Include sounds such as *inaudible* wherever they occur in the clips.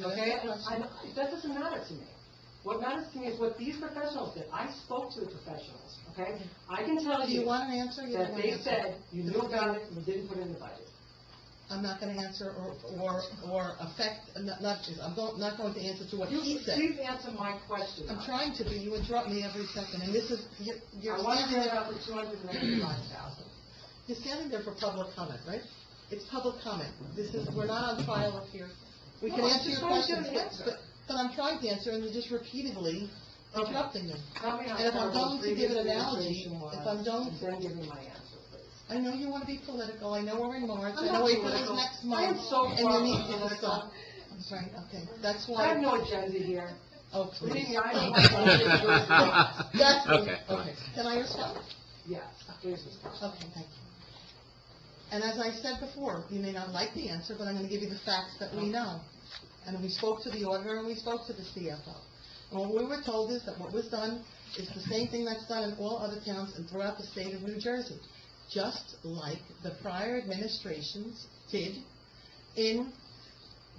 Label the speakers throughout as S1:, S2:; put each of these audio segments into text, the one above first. S1: Okay,
S2: Yeah, that's-
S1: I- that doesn't matter to me. What matters to me is what these professionals did. I spoke to the professionals, okay? I can tell
S2: Do you
S1: you
S2: want an answer? You
S1: that
S2: don't want
S1: they
S2: an answer.
S1: said you knew about it and you didn't put it in the budget.
S2: I'm not gonna answer or, or, or affect, not, not, I'm go- not going to answer to what
S1: You-
S2: he said.
S1: Please answer my question.
S2: I'm trying to, but you interrupt me every second, and this is, you're, you're
S1: I want to
S2: standing
S1: hear
S2: there,
S1: about the two hundred and eighty-five thousand.
S2: you're standing there for public comment, right? It's public comment, this is, we're not on trial up here. We can
S1: No, I
S2: answer your
S1: just wanted you to
S2: questions, but-
S1: answer.
S2: but, but I'm trying to answer, and you're just repeatedly interrupting me.
S1: Tell me how
S2: And if I'm
S1: terrible
S2: going to
S1: the
S2: give
S1: previous
S2: an analogy,
S1: administration was,
S2: if I'm going-
S1: and Then give me my answer, please.
S2: I know you want to be political, I know we're in March,
S1: I'm
S2: I
S1: not
S2: know April's
S1: political.
S2: next
S1: I am
S2: month,
S1: so
S2: and you need
S1: political.
S2: to stop. I'm sorry, okay, that's
S1: I have
S2: why,
S1: no agenda here.
S2: oh,
S1: Believe
S2: please.
S1: me,
S2: *laughs*
S1: I don't want to-
S2: That's,
S3: Okay, fine.
S2: okay, can I respond?
S1: Yes, please, Ms. Costa.
S2: Okay, thank you. And as I said before, you may not like the answer, but I'm gonna give you the facts that we know. And we spoke to the auditor and we spoke to the CFO. And what we were told is that what was done is the same thing that's done in all other towns and throughout the state of New Jersey, just like the prior administrations did in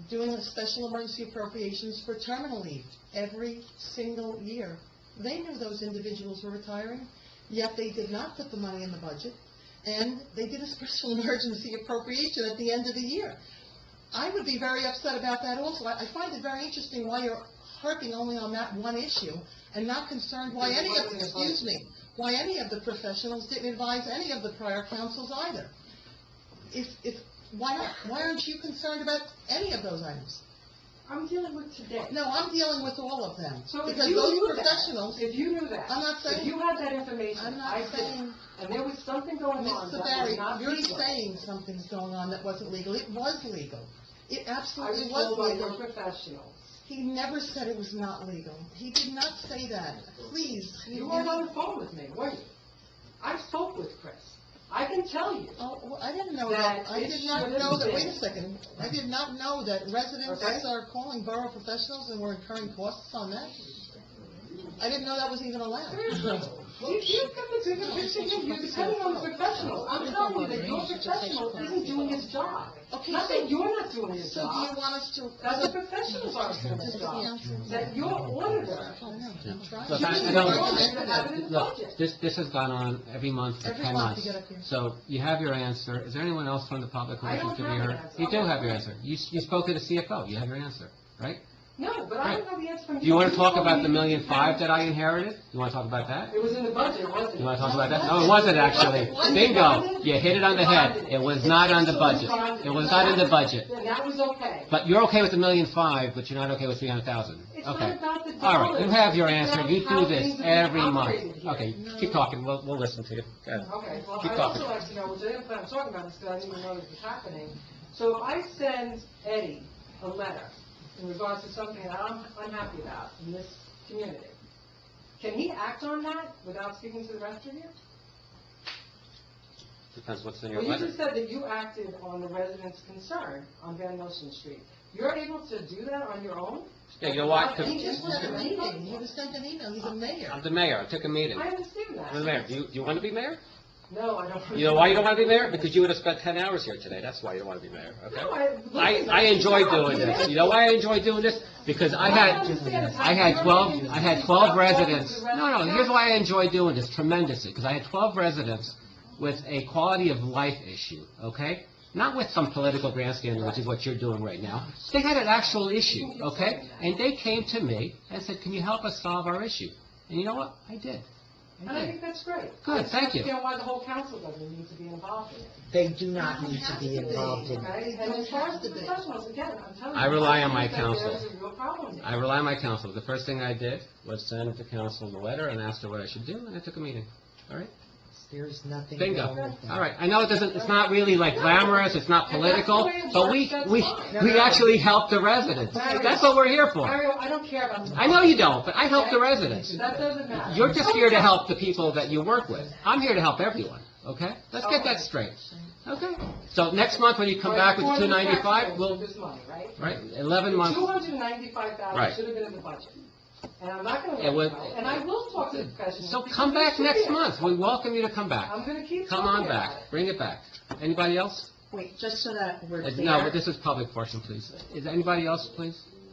S2: doing the special emergency appropriations for terminal leave every single year. They knew those individuals were retiring, yet they did not put the money in the budget, and they did a special *laughs* emergency appropriation at the end of the year. I would be very upset about that also. I I find it very interesting why you're harping only on that one issue and not concerned why any of, excuse me, why any of the professionals didn't advise any of the prior councils either. If, if, why not, why aren't you concerned about any of those items?
S1: I'm dealing with today.
S2: No, I'm dealing with all of them.
S1: So if
S2: Because
S1: you
S2: those
S1: knew that-
S2: professionals,
S1: If you knew that.
S2: I'm not
S1: If
S2: saying,
S1: you had that information,
S2: I'm
S1: I
S2: not
S1: did,
S2: saying,
S1: and there was something going on
S2: Mr.
S1: that was
S2: Barry,
S1: not
S2: you're
S1: legal.
S2: saying something's going on that wasn't legal. It was legal. It
S1: I was
S2: absolutely was
S1: told by
S2: legal.
S1: your professionals.
S2: He never said it was not legal. He did not say that. Please.
S1: You weren't on the phone with me, were you? I spoke with Chris. I can tell you.
S2: Oh, well, I didn't know
S1: That
S2: that. I
S1: it
S2: did not
S1: should have
S2: know that, wait a
S1: been.
S2: second. I did not know that
S1: Okay.
S2: residents are calling borough professionals and we're incurring costs on that. I didn't know that was even allowed.
S1: You, you come into the picture, you're depending on the professionals. I'm telling you that your professional isn't doing his job.
S2: Okay,
S1: Not that
S2: so,
S1: you're not doing his
S2: so do you
S1: job,
S2: want us to?
S1: that the professionals aren't doing
S2: Does
S1: his
S2: the
S1: job.
S2: council-
S1: That your auditor,
S2: I don't know. I'm trying.
S3: Look,
S1: you
S3: I- I
S1: didn't
S3: don't-
S1: want them to have it in the
S3: Look,
S1: budget.
S3: this, this has gone on every month for
S2: Every
S3: 10
S2: month you
S3: months.
S2: get up here.
S3: So you have your answer. Is there anyone else from the public who
S1: I
S3: wishes
S1: don't
S3: to be
S1: have an
S3: heard?
S1: answer.
S3: You do have your answer. You, s- you spoke to the CFO. You have your answer, right?
S1: No, but I don't have the answer from you.
S3: Do you want to talk about the million five
S1: five?
S3: that I inherited? You want to talk about that?
S1: It was in the budget, wasn't it?
S3: You want to talk about that? No, it wasn't actually. Bingo. You hit it on the head. It was not on the budget. It was not in the budget.
S1: Then that was okay.
S3: But you're okay with the million five, but you're not okay with 300,000.
S1: It's not
S3: Okay.
S1: about the dollars.
S3: All right, you have your answer. You
S1: It's about
S3: do
S1: how
S3: this
S1: things are
S3: every
S1: operated
S3: month.
S1: here.
S3: Okay, keep talking. We'll, we'll listen to you. Go ahead.
S1: Okay, well,
S3: Keep
S1: I'd
S3: talking.
S1: also like to know, which I didn't plan on talking about this, because I didn't even know this was happening. So if I send Eddie a letter in regards to something that I'm unhappy about in this community, can he act on that without speaking to the rest of you?
S3: Depends what's in your
S1: Well, you
S3: letter.
S1: just said that you acted on the residents' concern on Van Noeschen Street. You're able to do that on your own?
S3: Yeah, you know why? 'Cause
S2: He just sent an email. He just sent an email. He's a mayor.
S3: I'm the mayor. I took a meeting.
S1: I understand that.
S3: I'm the mayor. Do you, do you want to be mayor?
S1: No, I don't.
S3: You know why you don't want to be mayor? Because you would have spent 10 hours here today. That's why you don't want to be mayor, okay?
S1: No, I.
S3: I, I enjoy doing this. You know why I enjoy doing this? Because I had, I had twelve, I had twelve residents. No, no, here's why I enjoy doing this tremendously, because I had twelve residents with a quality of life issue, okay? Not with some political grandstanding, which is what you're doing right now. They had an actual issue, okay? And they came to me and said, can you help us solve our issue? And you know what? I did.
S1: And I
S3: I did.
S1: think that's great.
S3: Good,
S1: I just
S3: thank you.
S1: understand why the whole council doesn't need to be involved in it,
S4: They do not
S2: Doesn't
S4: need to
S2: have
S4: be
S2: to be.
S4: involved in.
S1: okay?
S2: It
S1: And as far as
S2: has
S1: the
S2: to be.
S1: professionals, again, I'm telling you.
S3: I rely on
S1: think
S3: my
S1: that
S3: council.
S1: There's a real problem there.
S3: I rely on my counsel. The first thing I did was send the council the letter and asked her what I should do, and I took a meeting. All right?
S4: There's nothing
S3: Bingo.
S4: wrong with that.
S3: All right, I know it doesn't, it's not really like glamorous, it's not political, but we, we, we actually help the residents. That's what we're here for.
S1: Mario, I don't care about. the-
S3: I know you don't, but I help the residents.
S1: That doesn't matter.
S3: You're just here to help the people that you work with. I'm here to help everyone, okay? Let's get that straight. Okay? So next month, when you come back with
S1: Right,
S3: two ninety-five,
S1: $495
S3: we'll,
S1: This money, right?
S3: right, eleven months.
S1: Two hundred and ninety-five
S3: Right.
S1: thousand should have been in the budget. And I'm not gonna
S3: It
S1: let
S3: was-
S1: it go, and I will talk to the professionals.
S3: So
S1: because
S3: come
S1: they
S3: back
S1: should
S3: next
S1: be.
S3: month. We welcome you to come back.
S1: I'm gonna keep
S3: Come
S1: talking
S3: on
S1: about
S3: back, bring it back. Anybody else?
S5: Wait, just so that we're
S3: Uh,
S5: clear.
S3: No, but this is public portion, please. Is anybody else, please?